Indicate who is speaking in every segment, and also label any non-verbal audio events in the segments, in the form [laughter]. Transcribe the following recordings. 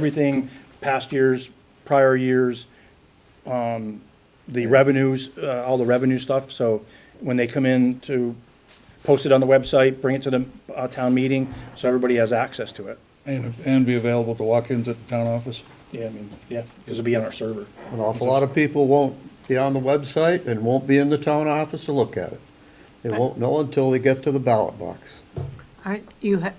Speaker 1: everything, past years, prior years, um, the revenues, uh, all the revenue stuff. So when they come in to post it on the website, bring it to the uh, town meeting, so everybody has access to it.
Speaker 2: And, and be available to walk-ins at the town office?
Speaker 1: Yeah, I mean, yeah, because it'll be on our server.
Speaker 3: An awful lot of people won't be on the website and won't be in the town office to look at it. They won't know until they get to the ballot box.
Speaker 4: Aren't you, ha-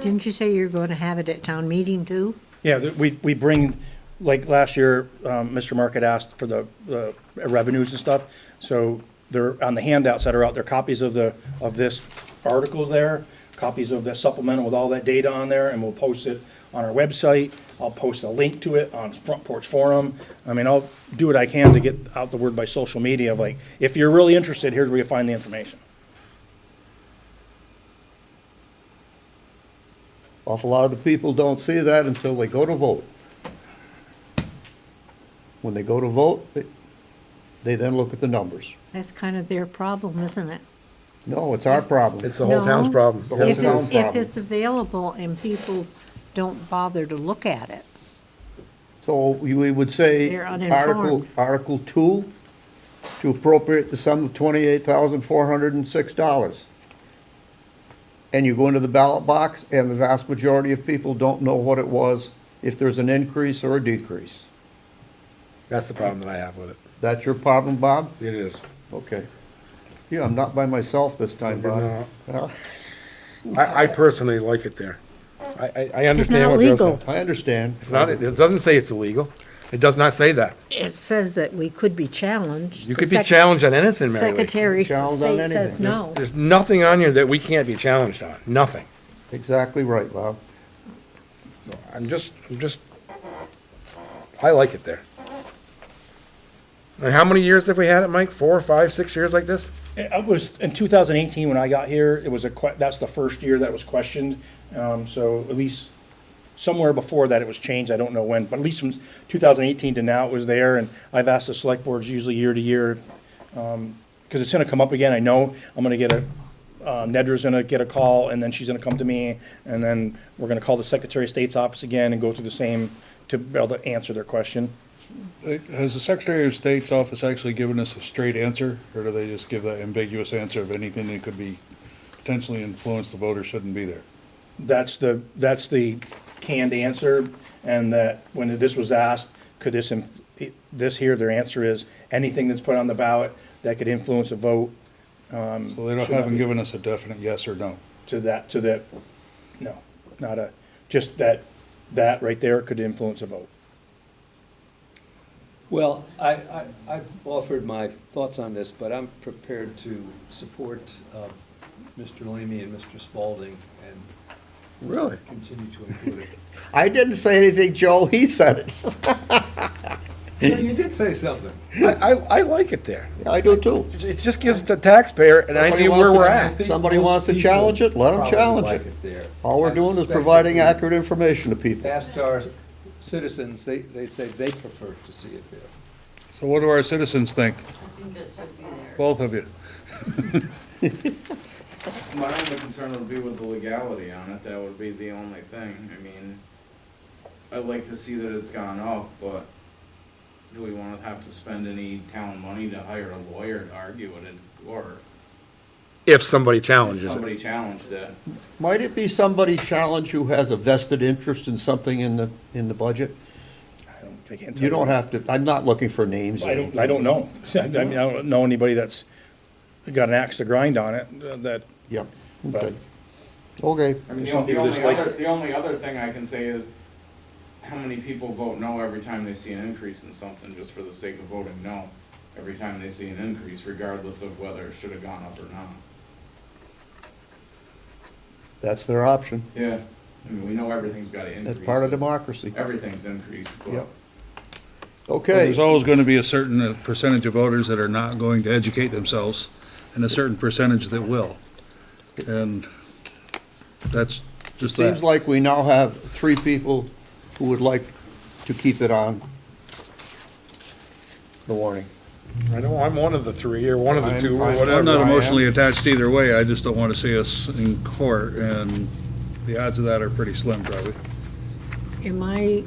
Speaker 4: didn't you say you're going to have it at town meeting too?
Speaker 1: Yeah, th- we, we bring, like last year, um, Mr. Market asked for the, the revenues and stuff. So they're, on the handouts that are out there, copies of the, of this article there, copies of the supplemental with all that data on there, and we'll post it on our website. I'll post a link to it on Front Porch Forum. I mean, I'll do what I can to get out the word by social media of like, if you're really interested, here's where you find the information.
Speaker 3: Awful lot of the people don't see that until they go to vote. When they go to vote, they- they then look at the numbers.
Speaker 4: That's kind of their problem, isn't it?
Speaker 3: No, it's our problem.
Speaker 5: It's the whole town's
Speaker 4: No.
Speaker 5: problem.
Speaker 3: The whole
Speaker 4: If
Speaker 5: Yes, it
Speaker 3: town's
Speaker 5: is.
Speaker 4: it's, if
Speaker 3: problem.
Speaker 4: it's available and people don't bother to look at it.
Speaker 3: So we we would say
Speaker 4: They're
Speaker 3: Article,
Speaker 4: uninformed.
Speaker 3: Article Two, to appropriate the sum of twenty-eight thousand four hundred and six dollars. And you go into the ballot box, and the vast majority of people don't know what it was, if there's an increase or a decrease.
Speaker 5: That's the problem that I have with it.
Speaker 3: That's your problem, Bob?
Speaker 5: It is.
Speaker 3: Okay. Yeah, I'm not by myself this time,
Speaker 5: You're
Speaker 3: Bob. Well,
Speaker 5: I, I personally like it there. I, I, I understand.
Speaker 4: not
Speaker 5: what Bill's
Speaker 4: legal.
Speaker 5: saying.
Speaker 3: I understand.
Speaker 5: It's not, it doesn't say it's illegal. It does not say that.
Speaker 4: It says that we could be challenged.
Speaker 5: You
Speaker 4: The
Speaker 5: could be
Speaker 4: sec-
Speaker 5: challenged on anything, Mary Lee.
Speaker 4: Secretary of
Speaker 3: Challenged on
Speaker 4: State says
Speaker 3: anything.
Speaker 4: no.
Speaker 5: There's nothing on here that we can't be challenged on, nothing.
Speaker 3: Exactly right, Bob.
Speaker 5: So I'm just, I'm just, I like it there. And how many years have we had it, Mike? Four, five, six years like this?
Speaker 1: It was, in 2018, when I got here, it was a, que- that's the first year that was questioned. Um, So at least somewhere before that, it was changed, I don't know when, but at least from 2018 to now, it was there. And I've asked the select boards usually year to year, because it's going to come up again, I know. I'm going to get a, uh, Nedra's going to get a call, and then she's going to come to me. And then we're going to call the Secretary of State's office again and go through the same to be able to answer their question.
Speaker 2: Uh, Has the Secretary of State's office actually given us a straight answer, or do they just give that ambiguous answer of anything that could be potentially influence the voter shouldn't be there?
Speaker 1: That's the, that's the canned answer, and that when this was asked, could this, inf- this here, their answer is, anything that's put on the ballot that could influence a vote
Speaker 2: So they don't,
Speaker 1: Mm, Should not
Speaker 2: haven't
Speaker 1: be.
Speaker 2: given us a definite yes or no.
Speaker 1: to that, to that, no, not a, just that, that right there could influence a vote.
Speaker 6: Well, I, I, I've offered my thoughts on this, but I'm prepared to support, uh, Mr. Leamy and Mr. Spalding and
Speaker 3: Really?
Speaker 6: continue to include it.
Speaker 3: [laughs] I didn't say anything, Joe. He said it.
Speaker 6: But you did say something.
Speaker 5: I, I, I like it there.
Speaker 3: I do too.
Speaker 5: It just gives the taxpayer an
Speaker 3: Somebody
Speaker 5: idea
Speaker 3: wants
Speaker 5: where
Speaker 3: to
Speaker 5: we're
Speaker 3: know.
Speaker 5: at.
Speaker 6: I think
Speaker 3: Somebody
Speaker 6: most
Speaker 3: wants to
Speaker 6: people
Speaker 3: challenge it, let 'em
Speaker 6: probably
Speaker 3: challenge
Speaker 6: like
Speaker 3: it.
Speaker 6: there.
Speaker 3: All we're
Speaker 6: I
Speaker 3: doing is
Speaker 6: suspect if
Speaker 3: providing
Speaker 6: we
Speaker 3: accurate information to people.
Speaker 6: Asked our citizens, they, they'd say they prefer to see it there.
Speaker 2: So what do our citizens think,
Speaker 7: I think that should be there.
Speaker 2: both of you?
Speaker 8: My only concern would be with the legality on it, that would be the only thing, I mean, I'd like to see that it's gone up, but do we wanna have to spend any town money to hire a lawyer to argue it, in court?
Speaker 5: If somebody
Speaker 8: if
Speaker 5: challenges it.
Speaker 8: somebody challenged it?
Speaker 3: Might it be somebody challenged who has a vested interest in something in the, in the budget?
Speaker 1: I don't, I can't tell
Speaker 3: You don't have to, I'm not looking for names. or
Speaker 1: I don't,
Speaker 3: anything.
Speaker 1: I don't know. [laughs] I mean, I don't know anybody that's got an axe to grind on it, uh, that,
Speaker 3: Yep,
Speaker 1: But-
Speaker 3: okay. Okay,
Speaker 8: I
Speaker 1: There's
Speaker 8: mean, the
Speaker 1: some people
Speaker 8: only, the
Speaker 1: that
Speaker 8: only
Speaker 1: just like
Speaker 8: other,
Speaker 1: it.
Speaker 8: the only other thing I can say is, how many people vote no every time they see an increase in something, just for the sake of voting no? Every time they see an increase, regardless of whether it should've gone up or not.
Speaker 3: that's their option.
Speaker 8: Yeah, I mean, we know everything's gotta increase.
Speaker 3: That's part of
Speaker 8: 'cause
Speaker 3: democracy.
Speaker 8: Everything's increased, but
Speaker 3: Yep.
Speaker 2: There's
Speaker 3: Okay,
Speaker 2: always gonna be a certain uh, percentage of voters that are not going to educate themselves, and a certain percentage that will. And that's just that.
Speaker 3: seems like we now have three people who would like to keep it on the warning.
Speaker 5: I know I'm one of the three, or one of the
Speaker 3: I'm-
Speaker 5: two, or
Speaker 3: I'm-
Speaker 5: whatever.
Speaker 2: I'm not
Speaker 3: I am.
Speaker 2: emotionally attached either way, I just don't want to see us in court, and the odds of that are pretty slim, probably.
Speaker 4: am I